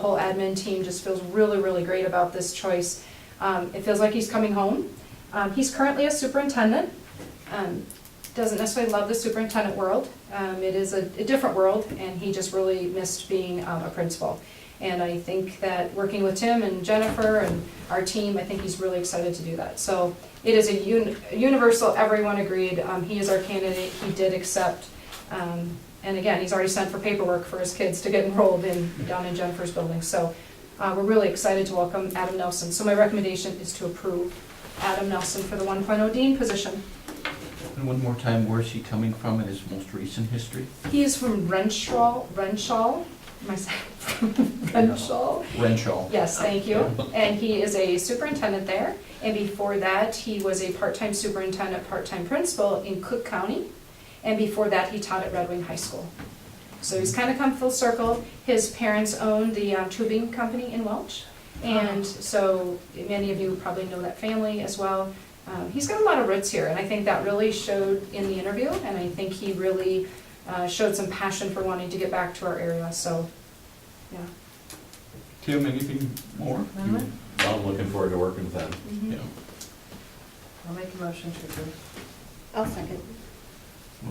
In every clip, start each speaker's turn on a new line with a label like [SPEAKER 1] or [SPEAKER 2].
[SPEAKER 1] The whole admin team just feels really, really great about this choice. Um, It feels like he's coming home. Um, He's currently a superintendent. Um, Doesn't necessarily love the superintendent world. Um, It is a a different world, and he just really missed being um, a principal. And I think that working with Tim and Jennifer and our team, I think he's really excited to do that. So it is a uni- universal, everyone agreed, um, he is our candidate, he did accept. Um, And again, he's already sent for paperwork for his kids to get enrolled in, down in Jennifer's building. So uh, we're really excited to welcome Adam Nelson. So my recommendation is to approve Adam Nelson for the 1.0 Dean position.
[SPEAKER 2] And one more time, where is he coming from in his most recent history?
[SPEAKER 1] He is from Renshaw, Renshaw, my, Renshaw.
[SPEAKER 2] Renshaw.
[SPEAKER 1] Yes, thank you. And he is a superintendent there. And before that, he was a part-time superintendent, part-time principal in Cook County. And before that, he taught at Red Wing High School. So he's kind of come full circle. His parents owned the um, tubing company in Welch. And so many of you probably know that family as well. Um, He's got a lot of roots here, and I think that really showed in the interview. And I think he really uh, showed some passion for wanting to get back to our area, so, yeah.
[SPEAKER 2] Tim, anything more?
[SPEAKER 3] Mhm.
[SPEAKER 4] Well, I'm looking forward to working with them.
[SPEAKER 1] Mhm.
[SPEAKER 2] Yeah.
[SPEAKER 3] I'll make a motion to approve.
[SPEAKER 5] I'll second.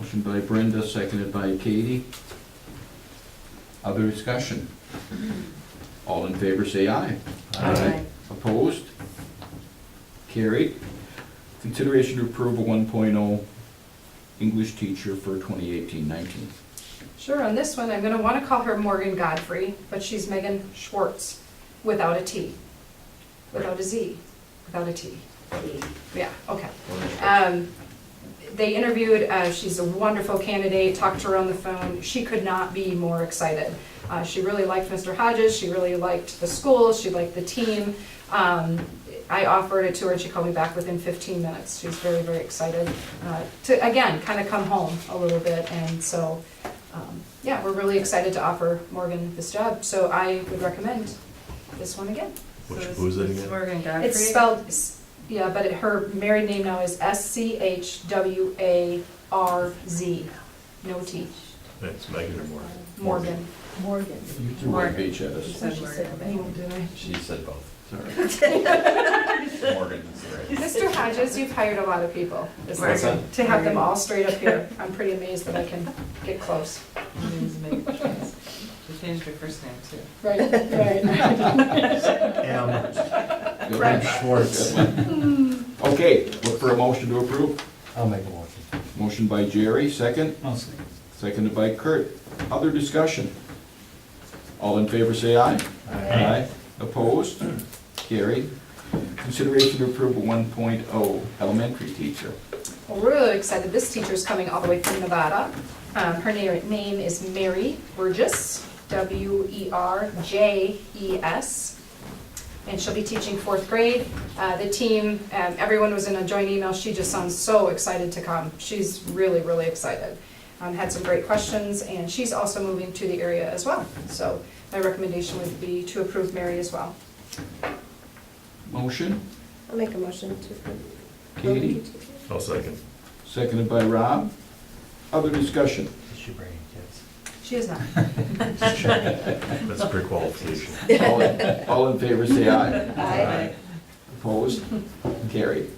[SPEAKER 2] Motion by Brenda, seconded by Katie. Other discussion? All in favor, say aye.
[SPEAKER 3] Aye.
[SPEAKER 2] Opposed? Carried. Consideration to approve a 1.0 English teacher for 2018-19.
[SPEAKER 1] Sure, on this one, I'm gonna wanna call her Morgan Godfrey, but she's Megan Schwartz, without a T, without a Z, without a T. Yeah, okay. Um, They interviewed, uh, she's a wonderful candidate, talked to her on the phone, she could not be more excited. Uh, She really liked Mr. Hodges, she really liked the school, she liked the team. Um, I offered it to her, and she called me back within 15 minutes, she's very, very excited uh, to, again, kind of come home a little bit, and so, um, yeah, we're really excited to offer Morgan this job, so I would recommend this one again.
[SPEAKER 4] Which-
[SPEAKER 3] So is-
[SPEAKER 4] who's it
[SPEAKER 3] is
[SPEAKER 4] again?
[SPEAKER 3] Morgan Godfrey.
[SPEAKER 1] It's spelled, s- yeah, but it- her married name now is S-C-H-W-A-R-Z, no T,
[SPEAKER 4] It's Megan or Morgan.
[SPEAKER 1] Morgan.
[SPEAKER 5] Morgan.
[SPEAKER 2] You threw my page at
[SPEAKER 3] She
[SPEAKER 2] us.
[SPEAKER 3] said
[SPEAKER 5] She
[SPEAKER 3] Morgan.
[SPEAKER 5] said
[SPEAKER 3] Megan.
[SPEAKER 4] She said both.
[SPEAKER 2] Sorry.
[SPEAKER 4] Morgan is right.
[SPEAKER 1] Mr. Hodges, you've hired a lot of people this
[SPEAKER 4] What's
[SPEAKER 1] year.
[SPEAKER 4] that?
[SPEAKER 1] To have them all straight up here, I'm pretty amazed that I can get close.
[SPEAKER 3] Means Megan Schwartz. She changed her first name too.
[SPEAKER 1] Right, right.
[SPEAKER 2] Go
[SPEAKER 1] Right.
[SPEAKER 2] ahead. Schwartz. Okay, look for a motion to approve.
[SPEAKER 6] I'll make a motion.
[SPEAKER 2] Motion by Jerry, second.
[SPEAKER 6] I'll second.
[SPEAKER 2] Seconded by Kurt. Other discussion? All in favor, say aye. Aye. Opposed? Carried. Consideration to approve a 1.0 elementary teacher.
[SPEAKER 1] We're really excited, this teacher's coming all the way from Nevada. Um, Her na- name is Mary Burgess, E W-E-R-J-E-S. E and she'll be teaching fourth grade. Uh, The team, um, everyone was in a joint email, she just sounds so excited to come. She's really, really excited. Um, Had some great questions, and she's also moving to the area as well. So my recommendation would be to approve Mary as well.
[SPEAKER 2] Motion,
[SPEAKER 5] I'll make a motion to approve.
[SPEAKER 2] Katie,
[SPEAKER 4] I'll second.
[SPEAKER 2] seconded by Rob. Other discussion?
[SPEAKER 6] It's your brain, kids.
[SPEAKER 1] She is not.
[SPEAKER 4] That's pre-qualification.
[SPEAKER 2] All in- all in favor, say aye.
[SPEAKER 1] Aye.
[SPEAKER 2] Opposed? Carried.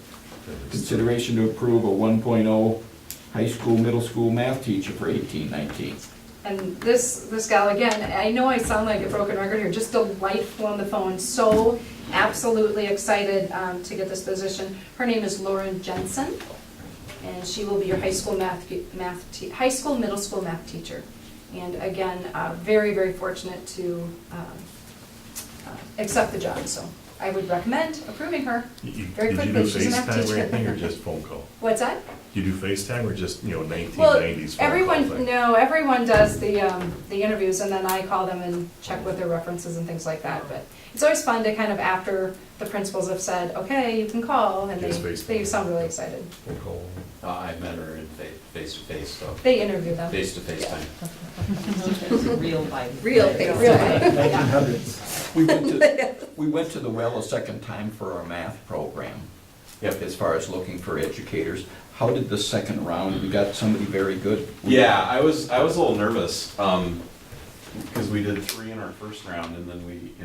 [SPEAKER 2] Consideration to approve a 1.0 high school, middle school math teacher for 1819.
[SPEAKER 1] And this, this gal, again, I know I sound like a broken record here, just delightful on the phone, so absolutely excited um, to get this position. Her name is Lauren Jensen, and she will be your high school math, math, te- high school, middle school math teacher. And again, uh, very, very fortunate to um, uh, accept the job, so I would recommend approving her.
[SPEAKER 4] You- you-
[SPEAKER 1] Very
[SPEAKER 4] Did you do
[SPEAKER 1] quickly, she's a math
[SPEAKER 4] FaceTime or
[SPEAKER 1] teacher.
[SPEAKER 4] anything, or just phone call?
[SPEAKER 1] What's that?
[SPEAKER 4] Do you do FaceTime or just, you know, nineteen
[SPEAKER 1] Well,
[SPEAKER 4] nineties phone call
[SPEAKER 1] everyone,
[SPEAKER 4] thing?
[SPEAKER 1] no, everyone does the, um, the interviews and then I call them and check with their references and things like that, but it's always fun to kind of after the principals have said, okay, you can call, and they,
[SPEAKER 4] Yes, Facebook.
[SPEAKER 1] they sound really excited.
[SPEAKER 4] Phone call.
[SPEAKER 7] Uh, I met her in fa- face-to-face, so,
[SPEAKER 1] They interview them.
[SPEAKER 7] face-to-face time.
[SPEAKER 3] It's a Real life.
[SPEAKER 5] Real
[SPEAKER 3] thing.
[SPEAKER 5] thing.
[SPEAKER 1] Real life,
[SPEAKER 6] Nineteen
[SPEAKER 1] yeah.
[SPEAKER 6] hundreds.
[SPEAKER 2] We went to, we went to the well a second time for our math program.
[SPEAKER 7] Yep.
[SPEAKER 2] As far as looking for educators. How did the second round, we got somebody very good?
[SPEAKER 7] Yeah, I was, I was a little nervous. Um, Because we did three in our first round, and then we,